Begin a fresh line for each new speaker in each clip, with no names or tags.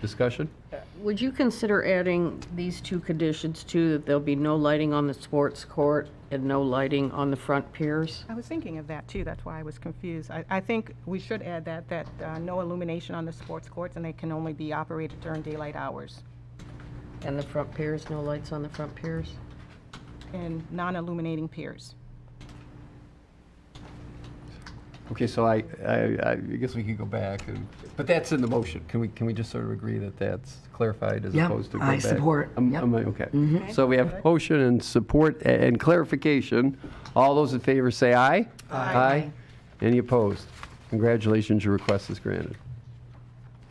Discussion?
Would you consider adding these two conditions too, that there'll be no lighting on the sports court and no lighting on the front piers?
I was thinking of that too, that's why I was confused. I, I think we should add that, that uh, no illumination on the sports courts and they can only be operated during daylight hours.
And the front piers, no lights on the front piers?
And non-illuminating piers.
Okay, so I, I, I guess we can go back and, but that's in the motion. Can we, can we just sort of agree that that's clarified as
Yep,
opposed to go
I
back?
support,
Um,
yep. Mm-hmm.
um, Okay. So we have motion and support a- and clarification. All those in favor say aye. Aye. Any opposed? Congratulations, your request is granted.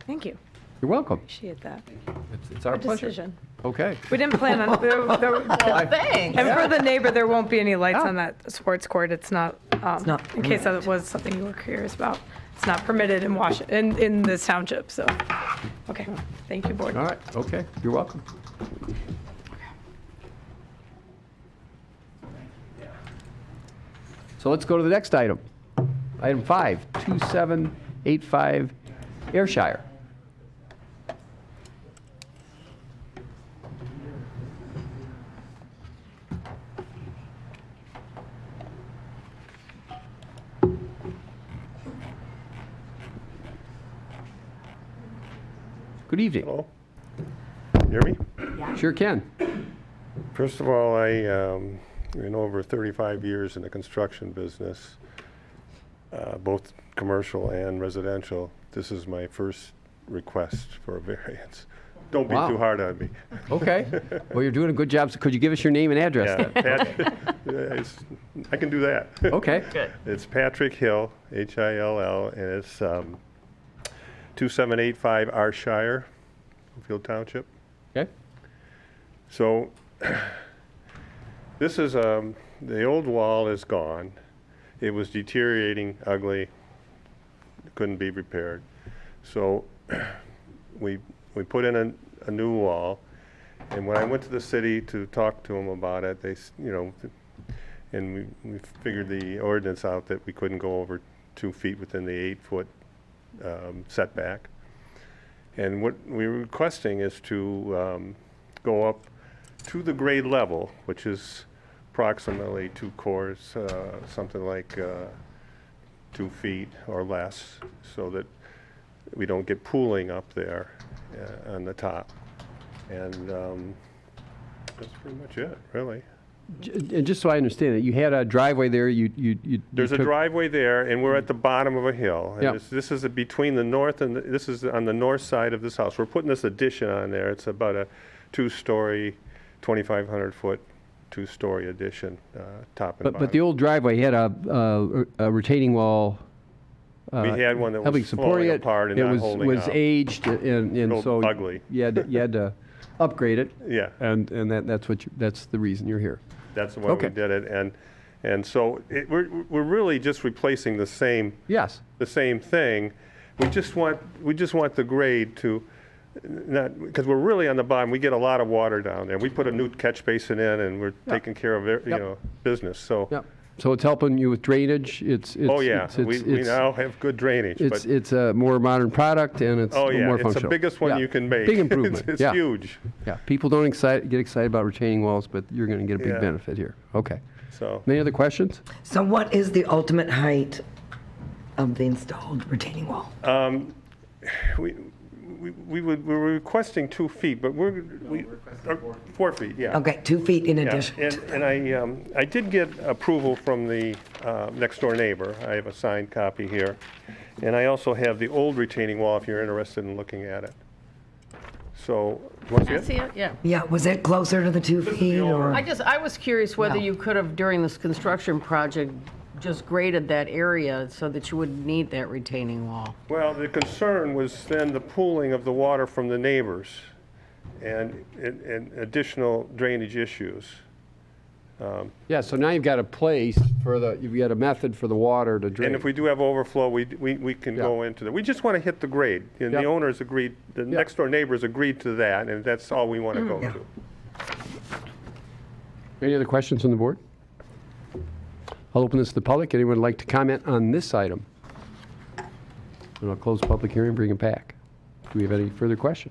Thank you.
You're welcome.
Appreciate that.
It's- It's our pleasure.
Decision.
Okay.
We didn't plan on, there- there-
Thanks.
and for the neighbor, there won't be any lights on that sports court. It's not, um,
not
in case that was something you were curious about. It's not permitted in Wash, in, in this township, so. Okay, thank you, board.
All right, okay, you're welcome. So let's go to the next item. Item five, 2785 Ayrshire. Good evening.
Hello? You Hear me?
Sure can.
First of all, I, um, been over 35 years in the construction business, uh, both commercial and residential. This is my first request for a variance. Don't be
Wow.
too hard on me.
Okay. Well, you're doing a good job. So could you give us your name and address
Yeah,
then?
Pat- it's- I can do that.
Okay.
It's Patrick Hill, H-I-L-L, and it's um, 2785 Arshire, Field Township.
Okay.
So this is, um, the old wall is gone. It was deteriorating, ugly, couldn't be repaired. So we, we put in a, a new wall. And when I went to the city to talk to them about it, they, s- you know, and we, we figured the ordinance out that we couldn't go over two feet within the eight-foot um, setback. And what we're requesting is to um, go up to the grade level, which is approximately two cores, uh, something like uh, two feet or less, so that we don't get pooling up there uh, on the top. And um, that's pretty much it, really.
J- And just so I understand it, you had a driveway there, you, you, you. you
There's a
took-
driveway there, and we're at the bottom of a hill. and
Yeah.
this- This is between the north and, the- this is on the north side of this house. We're putting this addition on there. It's about a two-story, 2,500-foot, two-story addition, uh, top and
But, but the
bottom.
old driveway had a, uh, a retaining wall.
We
uh,
had one that
helping
was
support
falling
it.
apart and not holding
It was,
up.
was aged and, and
Looked
so.
ugly.
You had, to- you had to upgrade it.
Yeah.
And, and that, that's what, you- that's the reason you're here.
That's the way
Okay.
we did it. And, and so it- we're, we're really just replacing the same
Yes.
the same thing. We just want, we just want the grade to not, because we're really on the bottom, we get a lot of water down there. We put a new catch basin in and we're taking care of, it, you
Yep.
know, business, so.
Yep. So it's helping you with drainage, it's, it's.
Oh, yeah,
it's-
we,
it's-
we
it's-
now have good drainage,
It's,
but,
it's a more modern product and it's
oh,
more
yeah,
functional.
it's the biggest one
Yeah.
you can make.
Big
It's-
improvement, yeah.
It's huge,
Yeah, people don't excite, get excited about retaining walls, but you're going to get a big
Yeah.
benefit here. Okay.
so.
Any other questions?
So what is the ultimate height of the installed retaining wall?
We, we we would, we were requesting two feet, but we're, we, or four feet, yeah.
Okay, two feet in
Yeah,
addition.
And,
to-
and I, um, I did get approval from the uh, next-door neighbor. I have a signed copy here. And I also have the old retaining wall, if you're interested in looking at it. So, you want to see it?
Yeah.
Yeah, was it closer to the two feet or?
I just, I was curious whether
No.
you could have, during this construction project, just graded that area so that you wouldn't need that retaining wall.
Well, the concern was then the pooling of the water from the neighbors and, and- and additional drainage issues.
Yeah, so now you've got a place for the, you've got a method for the water to drain.
And if we do have overflow, we, we we can
Yeah.
go into that. We just want to hit the grade. And
Yeah.
the owners agreed, the
Yeah.
next-door neighbors agreed to that, and that's all we want to go to.
Any other questions on the board? I'll open this to the public. Anyone would like to comment on this item? And I'll close the public hearing, bring it back. Do we have any further questions?